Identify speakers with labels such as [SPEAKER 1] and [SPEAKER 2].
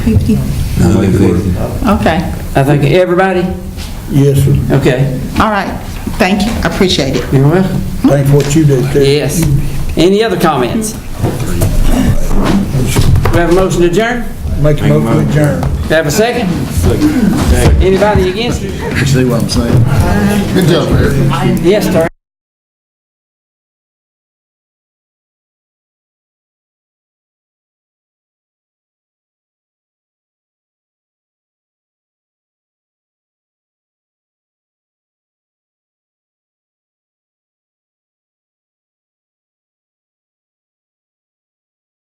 [SPEAKER 1] 50? Okay,
[SPEAKER 2] I think, everybody?
[SPEAKER 3] Yes, sir.
[SPEAKER 2] Okay,
[SPEAKER 1] all right, thank you, I appreciate it.
[SPEAKER 2] you're welcome.
[SPEAKER 3] Thanks for what you do, Ted.
[SPEAKER 2] Yes. Any other comments? We have a motion to adjourn?
[SPEAKER 3] Make a motion to adjourn.
[SPEAKER 2] Do I have a second? Anybody against it?
[SPEAKER 4] See what I'm saying? Good job, Eric.
[SPEAKER 2] Yes, sir.